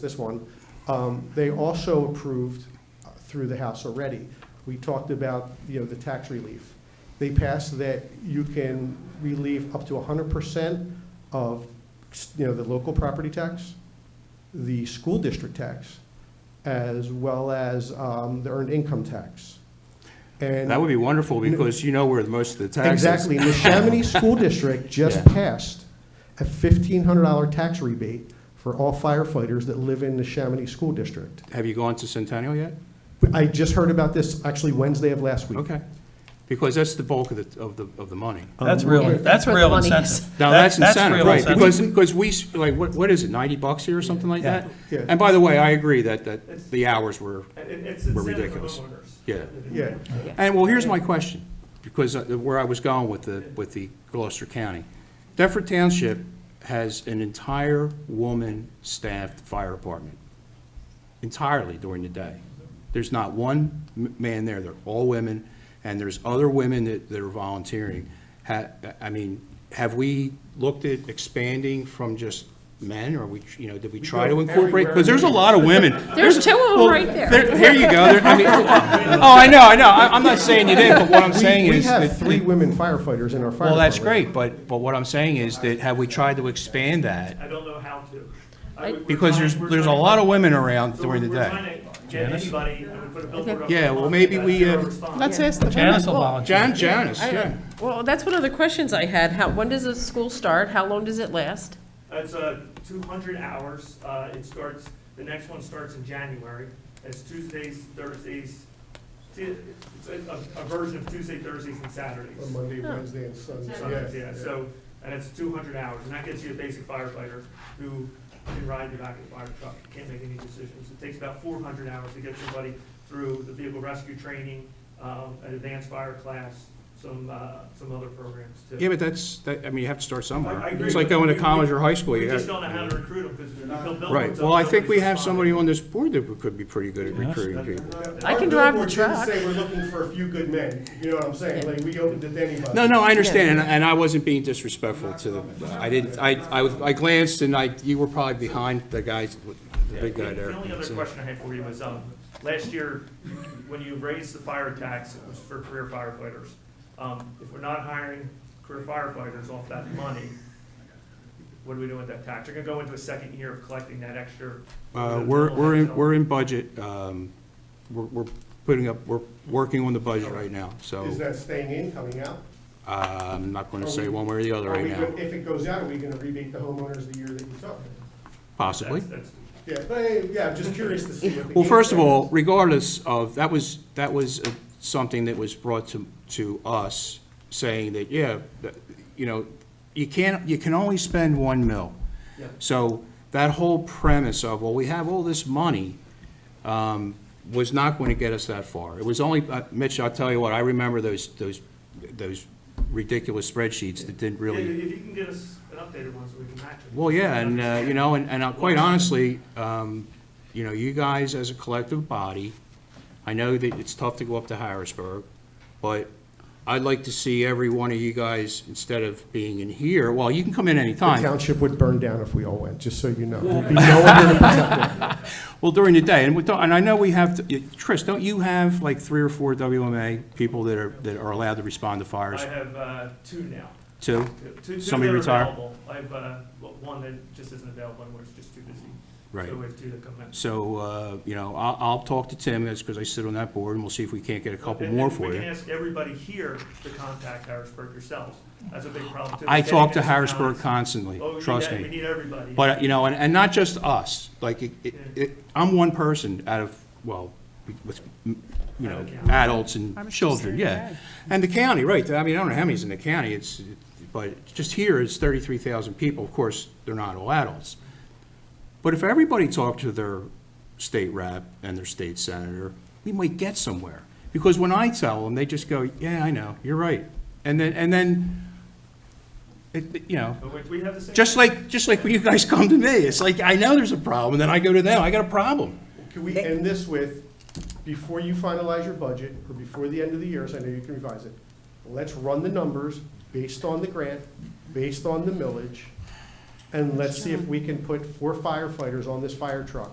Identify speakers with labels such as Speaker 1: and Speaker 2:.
Speaker 1: this one, um, they also approved uh, through the House already. We talked about, you know, the tax relief. They passed that you can relieve up to hundred percent of, you know, the local property tax, the school district tax, as well as um, the earned income tax. And
Speaker 2: That would be wonderful, because you know where most of the taxes.
Speaker 1: Exactly. And The Chamonix School District just
Speaker 2: Yeah.
Speaker 1: passed a fifteen hundred dollar tax rebate for all firefighters that live in the Chamonix School District.
Speaker 2: Have you gone to Centennial yet?
Speaker 1: I just heard about this actually Wednesday of last week.
Speaker 2: Okay, because that's the bulk of the, of the, of the money.
Speaker 3: That's
Speaker 1: Um,
Speaker 3: real,
Speaker 4: Yeah,
Speaker 3: that's
Speaker 4: that's where
Speaker 3: real
Speaker 4: the money is.
Speaker 3: incentive.
Speaker 2: Now,
Speaker 3: That-
Speaker 2: that's incentive,
Speaker 3: real
Speaker 2: right,
Speaker 3: incentive.
Speaker 2: because, because we, s- like, what, what is it, ninety bucks here or something like
Speaker 3: Yeah.
Speaker 2: that?
Speaker 1: Yeah.
Speaker 2: And by the way, I agree that, that the hours were,
Speaker 5: It- It's
Speaker 2: We're
Speaker 5: incentive for
Speaker 2: ridiculous.
Speaker 5: homeowners.
Speaker 2: yeah.
Speaker 1: Yeah.
Speaker 2: And, well, here's my question, because uh, where I was going with the, with the Gloucester County. Deptford Township has an entire woman-staffed fire department, entirely during the day. There's not one m- man there, they're all women, and there's other women that, that are volunteering. Ha, I mean, have we looked at expanding from just men, or we, you know, did we try to
Speaker 1: go
Speaker 2: incorporate?
Speaker 1: everywhere.
Speaker 2: Because there's a lot of women.
Speaker 4: There's two of them
Speaker 2: well,
Speaker 4: right there.
Speaker 2: Here you go, There- I mean, oh, I know, I know, I- I'm not saying you did, but what I'm
Speaker 1: We-
Speaker 2: saying
Speaker 1: We
Speaker 2: is.
Speaker 1: have
Speaker 2: that-
Speaker 1: three women firefighters in our fire
Speaker 2: Well, that's
Speaker 1: department.
Speaker 2: great, but, but what I'm saying is that have we tried to expand that?
Speaker 5: I don't know how to. I
Speaker 4: I-
Speaker 5: would- we're
Speaker 2: Because there's,
Speaker 5: trying- we're
Speaker 2: there's a
Speaker 5: trying-
Speaker 2: lot of women around
Speaker 5: so
Speaker 2: during the
Speaker 5: we're- We're
Speaker 2: day.
Speaker 5: trying to get anybody, and we put a billboard up.
Speaker 2: Yeah,
Speaker 5: on
Speaker 2: well,
Speaker 5: it,
Speaker 2: maybe
Speaker 5: that's
Speaker 2: we,
Speaker 5: zero
Speaker 2: uh,
Speaker 5: response.
Speaker 6: Let's ask the women.
Speaker 3: Janice will
Speaker 6: Well,
Speaker 3: volunteer.
Speaker 2: Jan, Janice, yeah.
Speaker 4: Well, that's one of the questions I had. How, when does the school start? How long does it last?
Speaker 5: That's uh, 200 hours. Uh, It starts, the next one starts in January. It's Tuesdays, Thursdays, Ti- it's a a- a version of Tuesday, Thursdays, and Saturdays.
Speaker 1: Monday, Wednesday, and Sunday.
Speaker 5: Sundays, yeah, so, and it's 200 hours. And that gets you a basic firefighter who can ride the back of the fire truck, can't make any decisions. It takes about 400 hours to get somebody through the vehicle rescue training, um, an advanced fire class, some, uh, some other programs too.
Speaker 2: Yeah, but that's, that, I mean, you have to start
Speaker 5: I- I
Speaker 2: somewhere.
Speaker 5: agree,
Speaker 2: It's like
Speaker 5: but
Speaker 2: going to
Speaker 5: we-
Speaker 2: college or high school.
Speaker 5: We
Speaker 2: you
Speaker 5: just
Speaker 2: got-
Speaker 5: don't know how to recruit them because we build buildings.
Speaker 2: uh, Right,
Speaker 5: up,
Speaker 2: well, I think
Speaker 5: nobody's
Speaker 2: we have somebody
Speaker 5: responding.
Speaker 2: on this board that could be pretty good at
Speaker 3: Yes.
Speaker 2: recruiting people.
Speaker 4: I can drive the
Speaker 1: Our billboard
Speaker 4: truck.
Speaker 1: didn't say we're looking for a few good men, you know what I'm saying? Like, we opened it to anybody.
Speaker 2: No, no, I understand, and, and I wasn't being disrespectful to the, I didn't, I, I was- I glanced and I, you were probably behind the guys, with- the big guy
Speaker 5: The-
Speaker 2: there.
Speaker 5: The only other
Speaker 2: So-
Speaker 5: question I had for you was, um, last year, when you raised the fire tax, it was for career firefighters. Um, if we're not hiring career firefighters off that money, what are we doing with that tax? You're gonna go into a second year of collecting that extra.
Speaker 2: Uh, We're, we're in, we're in budget, um, we're, we're putting up, we're working on the budget right now,
Speaker 1: Is
Speaker 2: so
Speaker 1: that staying in, coming out?
Speaker 2: uh, I'm not gonna
Speaker 1: Are
Speaker 2: say
Speaker 1: we-
Speaker 2: one way or the other
Speaker 1: Are
Speaker 2: right
Speaker 1: we
Speaker 2: now,
Speaker 1: gonna- If it goes out, are we gonna rebate the homeowners the year that you took?
Speaker 2: possibly.
Speaker 5: That's, that's,
Speaker 1: Yeah, but, eh, yeah, I'm just curious to see what the.
Speaker 2: Well,
Speaker 1: game
Speaker 2: first of
Speaker 1: plan
Speaker 2: all,
Speaker 1: is.
Speaker 2: regardless of, that was, that was uh, something that was brought to, to us, saying that, yeah, that, you know, you can't, you can only spend one mil.
Speaker 5: Yeah.
Speaker 2: So that whole premise of, well, we have all this money, um, was not going to get us that far. It was only, uh, Mitch, I'll tell you what, I remember those, those, those ridiculous spreadsheets that didn't
Speaker 5: if
Speaker 2: really
Speaker 5: if you can get us an updated one so we can match it.
Speaker 2: well, yeah, and, uh, you know, and, and uh, quite honestly, um, you know, you guys as a collective body, I know that it's tough to go up to Harrisburg, but I'd like to see every one of you guys, instead of being in here, well, you can come in
Speaker 1: The
Speaker 2: anytime,
Speaker 1: township would burn down if we all went, just so you know. There'd be no one here to protect it.
Speaker 2: well, during the day, and we don't, and I know we have, to Trish, don't you have like three or four WMA people that are, that are allowed to respond to fires,
Speaker 5: I have, uh, two now.
Speaker 2: too?
Speaker 5: Two- Two, two
Speaker 2: Somebody
Speaker 5: that are
Speaker 2: retire?
Speaker 5: available. I have, uh, one that just isn't available anymore, it's just too busy.
Speaker 2: Right.
Speaker 5: So we have two that come in.
Speaker 2: So, uh, you know, I'll, I'll talk to Tim, that's because I sit on that board, and we'll see if we can't get a couple
Speaker 5: And-
Speaker 2: more
Speaker 5: and
Speaker 2: for
Speaker 5: We
Speaker 2: you.
Speaker 5: can ask everybody here to contact Harrisburg yourselves. That's a big problem too.
Speaker 2: I
Speaker 5: Getting
Speaker 2: talk to
Speaker 5: this
Speaker 2: Harrisburg
Speaker 5: balance.
Speaker 2: constantly,
Speaker 5: Oh, we need
Speaker 2: trust
Speaker 5: that. We
Speaker 2: me.
Speaker 5: need everybody.
Speaker 2: But, you know, and, and not just us, like, it- it, it, I'm one person out of, well, with, you know, adults
Speaker 6: How
Speaker 2: and
Speaker 6: much is
Speaker 2: children, yeah.
Speaker 6: there?
Speaker 2: And the county, right, I mean, I don't know how many's in the county, it's, but just here it's thirty-three thousand people, of course, they're not all adults. But if everybody talked to their state rep and their state senator, we might get somewhere. Because when I tell them, they just go, yeah, I know, you're right. And then, and then, it, it- you know,
Speaker 5: But we- we have the same.
Speaker 2: just like, just like when you guys come to me, it's like, I know there's a problem, and then I go to them, I got a problem.
Speaker 1: Can we end this with, before you finalize your budget, or before the end of the year, so I know you can revise it, let's run the numbers based on the grant, based on the millage, and let's see if we can put four firefighters on this fire truck